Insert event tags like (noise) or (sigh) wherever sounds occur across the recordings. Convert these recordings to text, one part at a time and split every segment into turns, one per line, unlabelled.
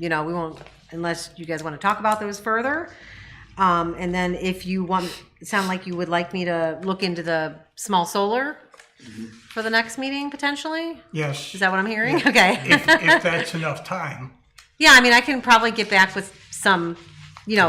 you know, we won't, unless you guys want to talk about those further. Um, and then if you want, it sound like you would like me to look into the small solar for the next meeting potentially?
Yes,
Is that what I'm hearing? Okay. (laughs)
if, if that's enough time.
Yeah, I mean, I can probably get back with some, you know,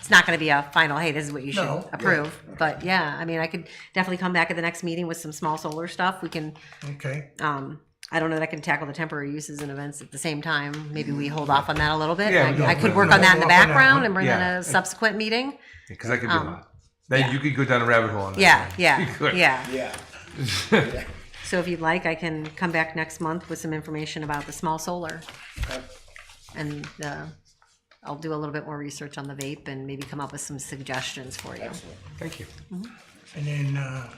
it's not going to be a final, hey, this is what you should
No, yeah.
approve. But yeah, I mean, I could definitely come back at the next meeting with some small solar stuff. We can,
Okay,
um, I don't know that I can tackle the temporary uses and events at the same time. Maybe we hold off on that a little bit.
Yeah,
I,
we
I
don't-
could
we
work
don't
on that in the
hold off on that
background
one.
and bring in
Yeah.
a subsequent meeting.
Because I could do a lot. Then
Um, yeah.
you could go down a rabbit hole. On that
Yeah,
(laughs) one. You
yeah,
could.
yeah.
Yeah.
So if you'd like, I can come back next month with some information about the small solar. And uh, I'll do a little bit more research on the vape and maybe come up with some suggestions for you.
Thank you.
and then, uh,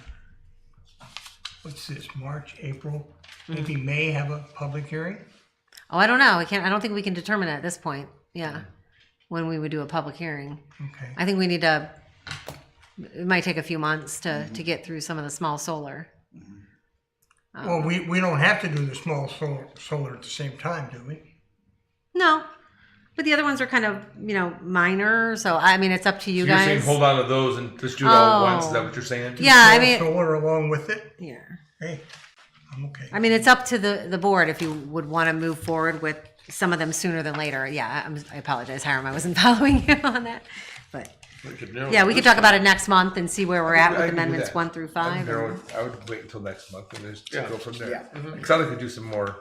what's this, March, April, maybe May have a public hearing?
Oh, I don't know. I can't, I don't think we can determine at this point. Yeah. When we would do a public hearing.
Okay,
I think we need to, it might take a few months to, to get through some of the small solar.
well, we, we don't have to do the small solar, solar at the same time, do we?
No, but the other ones are kind of, you know, minor. So I mean, it's up to you
So you're saying
guys.
hold on to those and just do it all at once? Is
Oh.
that what you're saying?
Yeah, I
Small
mean,
Solar along with it,
yeah.
hey, I'm okay.
I mean, it's up to the, the board if you would want to move forward with some of them sooner than later. Yeah, I'm, I apologize, Hiram, I wasn't (laughs) following you on that. But, yeah, we could talk about it next month and see where we're at
I
with
can do
amendments
that.
one through
I
five.
would, narrow
and-
it- I would wait until next month and just go from
Yeah.
there. Mm-hmm. Because I could do some more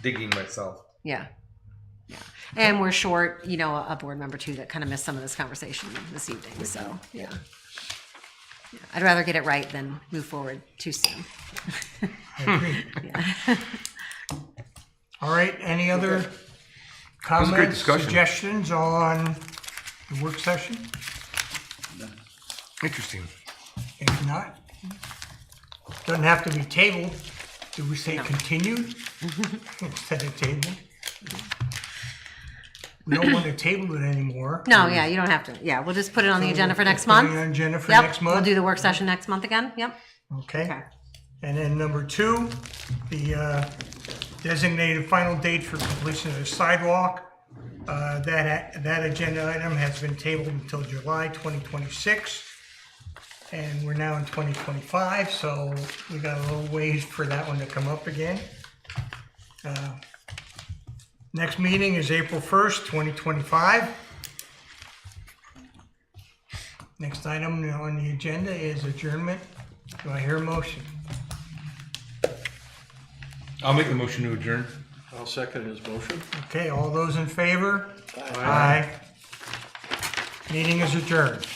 digging myself.
Yeah. Yeah. And we're short, you know, a board member too that kind of missed some of this conversation this evening, so, yeah. Yeah, I'd rather get it right than move forward too soon.
All right, any other
was a great
comments,
discussion.
suggestions on the work session?
Interesting.
If not, doesn't have to be tabled. Do we say continued
(laughs)
instead of tabled? We don't want to table it anymore.
No, yeah, you don't have to. Yeah, we'll just put it on the agenda for next
Put it
month.
on agenda for
Yep,
next
We'll
month?
do the work session next month again, yep.
Okay.
Okay.
And then number two, the uh, designated final date for completion of the sidewalk. Uh, That, that agenda item has been tabled until July 2026. And we're now in 2025, so we got a little ways for that one to come up again. Uh, Next meeting is April 1st, 2025. Next item on the agenda is adjournment. Do I hear a motion?
I'll make the motion to adjourn.
I'll second his motion.
Okay, all those in favor? Aye. Meeting is adjourned.